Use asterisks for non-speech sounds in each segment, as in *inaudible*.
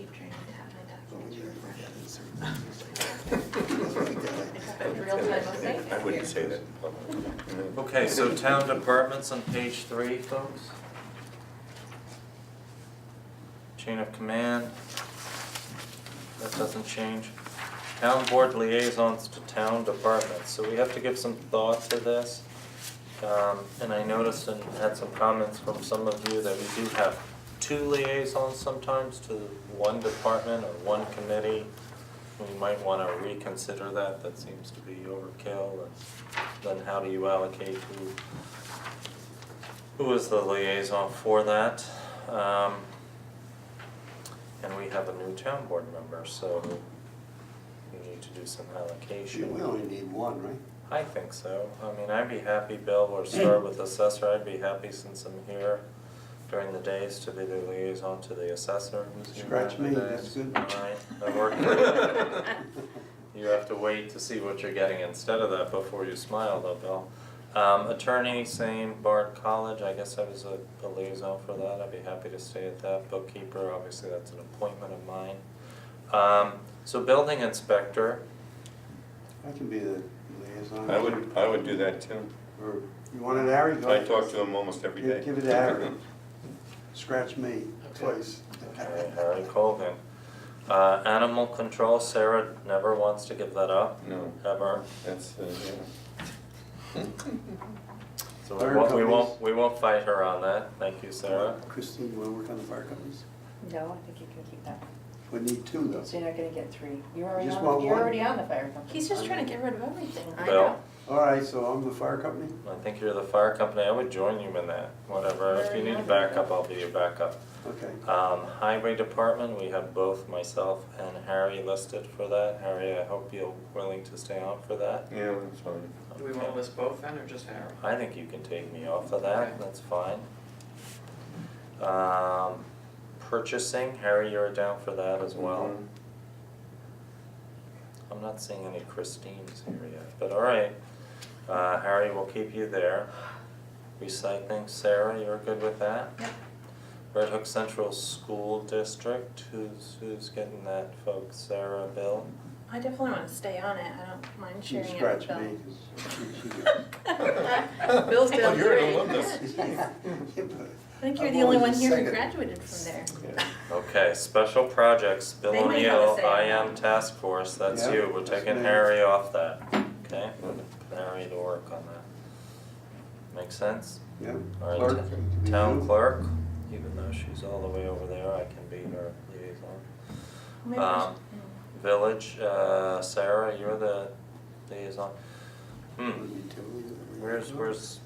Oh, *laughs* I wouldn't say that. Okay, so town departments on page three, folks. Chain of command. That doesn't change. Town board liaisons to town departments, so we have to give some thought to this. Um, and I noticed and had some comments from some of you that we do have two liaisons sometimes to one department or one committee. We might wanna reconsider that, that seems to be overkill, and then how do you allocate who, who is the liaison for that? Um, and we have a new town board member, so we need to do some Sure, allocation. we only need one, right? I think so. I mean, I'd be happy, Bill, or start with assessor. I'd be happy since I'm here during the days to be the liaison to the assessor. who's here Scratch during the me, that's days. good. All right, that worked. *laughs* Uh, You have to wait to see what you're getting instead of that before you smile though, Bill. Um, attorney, same, Bard College, I guess I was a a liaison for that. I'd be happy to stay at that. Bookkeeper, obviously that's an appointment of mine. Um, so building inspector, I can be the liaison. I would, I would do that too. Or, you want it, Harry? Go I ahead. talk to him almost every Give- day. give it *laughs* to Aaron. Scratch me twice. Okay, Harry Colvin. Uh, animal control, Sarah never wants to give that up, No, ever. that's, uh, So Fire we won't, we companies. won't, we won't fight her on that. Thank you, Sarah. Christine, you wanna work on the fire companies? No, I think you can keep that, We need two though. so you're not gonna get three. You're already Just on, want you're one. already on the fire company. He's just trying to get rid of everything. I Bill, All right, so I'm the fire company? I think you're the fire company. I would join you in that, whatever. If you need a backup, I'll be your backup. Okay. Um, highway department, we have both myself and Harry listed for that. Harry, I hope you're willing to stay on for that. yeah, that's fine. Do we want to list both then, or just Harry? I think you can take me off of Okay. that, that's fine. Um, purchasing, Harry, you're down for that as *laughs* well. Mm-hmm. Mhm. I'm not seeing any Christines here yet, but all right. Uh, Harry, we'll keep you there. Recycling, Sarah, you're good with that? Yep. Red Hook Central School District, who's, who's getting that, folks? Sarah, Bill? I definitely want to stay on it. I don't mind She sharing it with scratched Bill. me. 'cause she- she did. *laughs* Bill's Oh, down you're an three. *laughs* alumnus. *laughs* Yeah, but I think you're I'm the only always one here who second. graduated from there. Yeah. Okay, special projects, Bill They might have a O'Neill, say. I am task force, that's Yeah, you, we're that's taking me. Harry off that, okay? Put Harry to work on that. Make sense? Yeah. All right, Clerk, t- you can be Town you. clerk, even though she's all the way over there, I can be her liaison. Maybe I Um, Village, uh, Sarah, you're the liaison. Hmm, Would be two. where's, where's,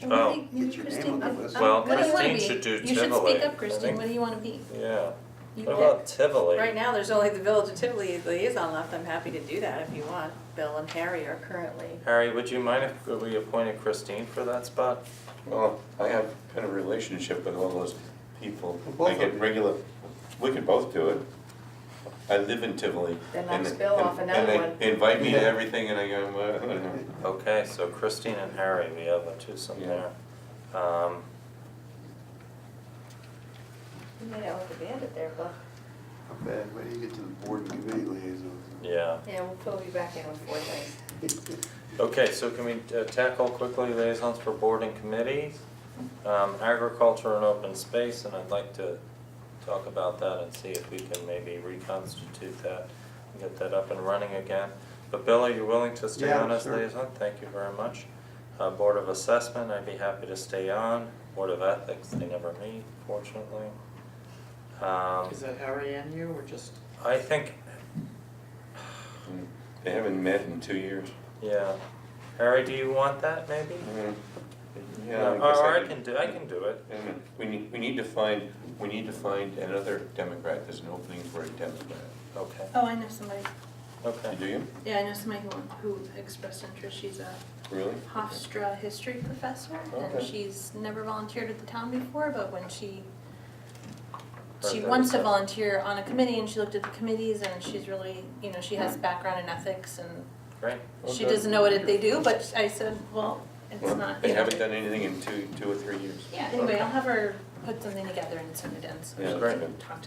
should- oh. Maybe- maybe Get your name Christine- on the um, list. um, Well, what do you wanna Christine be? should do You should Tivoli, speak I up, Christine. think. What do you want to be? yeah, You what about pick. Tivoli? Right now, there's only the village of Tivoli liaison left, I'm happy to do that if you want. Bill and Harry are currently. Harry, would you mind if we appointed Christine for that spot? Well, I have kind of a relationship with all those people. Well, both I get of you. regular, we can both do it. I live in Tivoli. Then and- let's bill off and- another And one. they invite me to Yeah. everything and I go, well, I don't know. Okay, so Christine and Harry, we have a twosome Yeah. there. Um, You made out with a bandit there, Bill. Not bad, wait till you get to the board and committee liaison. yeah. Yeah, we'll pull you back in with four things. *laughs* Okay, so can we uh, tackle quickly liaisons for board and committees? Um, agriculture and open space, and I'd like to talk about that and see if we can maybe reconstitute that and get that up and running again. But Bill, are you willing to stay Yeah, on as sure. liaison? Thank you very much. Uh, board of assessment, I'd be happy to stay on. Board of ethics, they never meet, fortunately. Um, Is that Harry and you, or just? I think, They haven't met in two years. yeah. Harry, do you want that maybe? Mm. Yeah, I Or guess or I I could- can do, I can do it. Wait a minute. We need, we need to find, we need to find another Democrat, there's an opening for a Democrat. Okay, Oh, I know somebody. okay. Do you? Yeah, I know somebody who, who expressed interest. She's a Really? Hofstra history professor, and Okay. she's never volunteered at the town before, but when she Heard she that wants to before. volunteer on a committee, and she looked at the committees, and she's really, you know, she has background in ethics, and Great. she Hmm. Okay. doesn't know what they do, but I said, well, it's not, They you know. haven't done anything in two, two or three years. Yeah, anyway, Okay. I'll have her put something together and send it in, so Yeah, she great. can talk to